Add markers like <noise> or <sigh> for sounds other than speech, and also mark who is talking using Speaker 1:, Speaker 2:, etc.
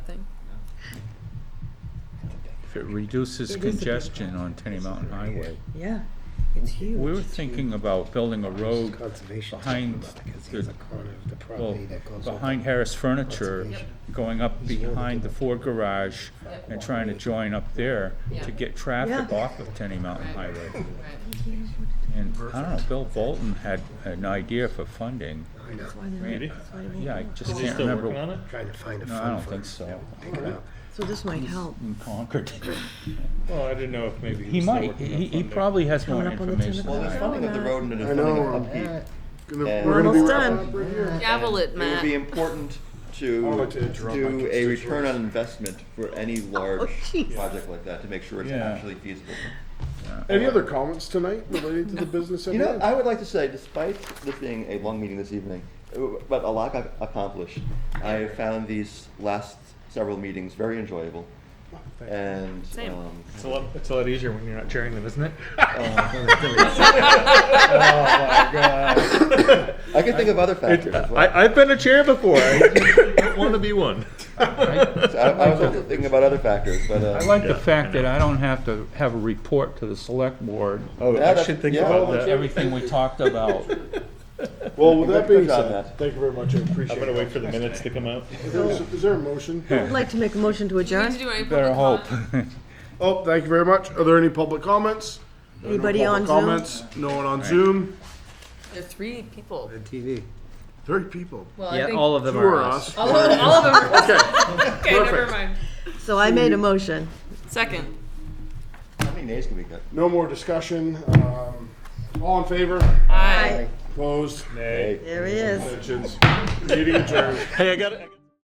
Speaker 1: If it reduces
Speaker 2: It is a big
Speaker 1: congestion on Tenny Mountain Highway.
Speaker 2: Yeah, it's huge.
Speaker 1: We were thinking about building a road
Speaker 3: Conservation.
Speaker 1: behind
Speaker 3: Because
Speaker 1: the-
Speaker 3: he's a corner of the
Speaker 1: Well,
Speaker 3: property that goes.
Speaker 1: behind
Speaker 3: over.
Speaker 1: Harris Furniture,
Speaker 3: Conservation.
Speaker 1: going up behind the Ford garage
Speaker 4: Yep.
Speaker 1: and trying to join up there to
Speaker 4: Yeah.
Speaker 1: get traffic
Speaker 2: Yeah.
Speaker 1: off of Tenny Mountain
Speaker 4: Right.
Speaker 1: Highway.
Speaker 4: Right.
Speaker 1: And I don't know, Bill Bolton had an idea for funding.
Speaker 3: I know,
Speaker 2: That's why they're-
Speaker 1: Really?
Speaker 2: that's why they won't
Speaker 1: Yeah, I
Speaker 2: work.
Speaker 1: just
Speaker 5: Is he
Speaker 1: can't
Speaker 5: still working on
Speaker 1: remember.
Speaker 5: it?
Speaker 3: trying to find a
Speaker 1: No, I
Speaker 3: fund
Speaker 1: don't
Speaker 3: for
Speaker 1: think
Speaker 3: it,
Speaker 1: so.
Speaker 3: you know, Pick it up.
Speaker 2: So this might help.
Speaker 1: In Concord.
Speaker 5: Well, I didn't know if maybe
Speaker 1: He
Speaker 5: he was still
Speaker 1: might,
Speaker 5: working on
Speaker 1: he, he
Speaker 5: funding.
Speaker 1: probably has more
Speaker 2: Coming up on the
Speaker 1: information.
Speaker 2: tentacle.
Speaker 6: Well,
Speaker 1: than I
Speaker 6: there's
Speaker 1: do.
Speaker 6: funding of the road and there's
Speaker 7: I
Speaker 6: funding
Speaker 7: know,
Speaker 6: of upkeep.
Speaker 7: Gonna-
Speaker 6: And-
Speaker 7: we're gonna be
Speaker 2: Almost
Speaker 7: wrapping
Speaker 2: done.
Speaker 7: up right here.
Speaker 4: Gavel it,
Speaker 6: It would
Speaker 4: Matt.
Speaker 6: be important
Speaker 7: I'll
Speaker 6: to
Speaker 7: let you interrupt my
Speaker 6: do a
Speaker 7: constituents.
Speaker 6: return on investment for any large
Speaker 2: jeez.
Speaker 6: project like that to make sure it's
Speaker 1: Yeah.
Speaker 6: actually feasible.
Speaker 7: Any other comments tonight related to the business at
Speaker 6: You know,
Speaker 7: hand?
Speaker 6: I would like to say, despite this being a long meeting this evening, uh, but a lot got accomplished, I have found these last several meetings very enjoyable. And,
Speaker 4: Same.
Speaker 6: um,
Speaker 5: It's a lot, it's a lot easier when you're not chairing them, <laughs> isn't it? Oh,
Speaker 6: I can think of other factors as well.
Speaker 5: I, I've been a chair before. <laughs> I don't want to be one.
Speaker 6: So I I was also thinking about other factors, but,
Speaker 1: I
Speaker 6: uh,
Speaker 1: like the fact that I don't have to have a report to the select board
Speaker 5: Oh,
Speaker 6: Yeah,
Speaker 5: I
Speaker 6: that's-
Speaker 5: should think
Speaker 6: yeah.
Speaker 5: about
Speaker 1: of
Speaker 5: that.
Speaker 1: everything we talked about.
Speaker 7: Well, with that being
Speaker 6: Good job,
Speaker 7: said,
Speaker 6: Matt.
Speaker 7: thank you very much, I appreciate
Speaker 5: I'm
Speaker 7: it.
Speaker 5: gonna wait for the minutes to come out.
Speaker 7: Is there- Is there a motion?
Speaker 2: I'd like to make a motion to
Speaker 4: Do you need to
Speaker 2: adjourn.
Speaker 4: do any
Speaker 1: Better
Speaker 4: public
Speaker 1: hope.
Speaker 4: comment?
Speaker 7: Oh, thank you very much. Are there any public comments? There are no
Speaker 2: Anybody
Speaker 7: public
Speaker 2: on Zoom?
Speaker 7: Comments, no one on Zoom,
Speaker 4: There are three people.
Speaker 3: On TV.
Speaker 7: three people.
Speaker 4: Well, I
Speaker 8: Yeah,
Speaker 4: think
Speaker 8: all of them
Speaker 7: Two
Speaker 8: are
Speaker 7: are
Speaker 8: us.
Speaker 7: us.
Speaker 4: all of them. All of them. Are,
Speaker 7: Okay,
Speaker 4: okay, never
Speaker 7: perfect.
Speaker 4: mind.
Speaker 2: So I made a motion.
Speaker 4: Second.
Speaker 6: how many nays can we get?
Speaker 7: No more discussion. Um, All in favor?
Speaker 4: Aye.
Speaker 7: Opposed?
Speaker 6: Nay.
Speaker 2: There he is.
Speaker 7: Abstentions? Meeting adjourned.
Speaker 5: Hey, I got it.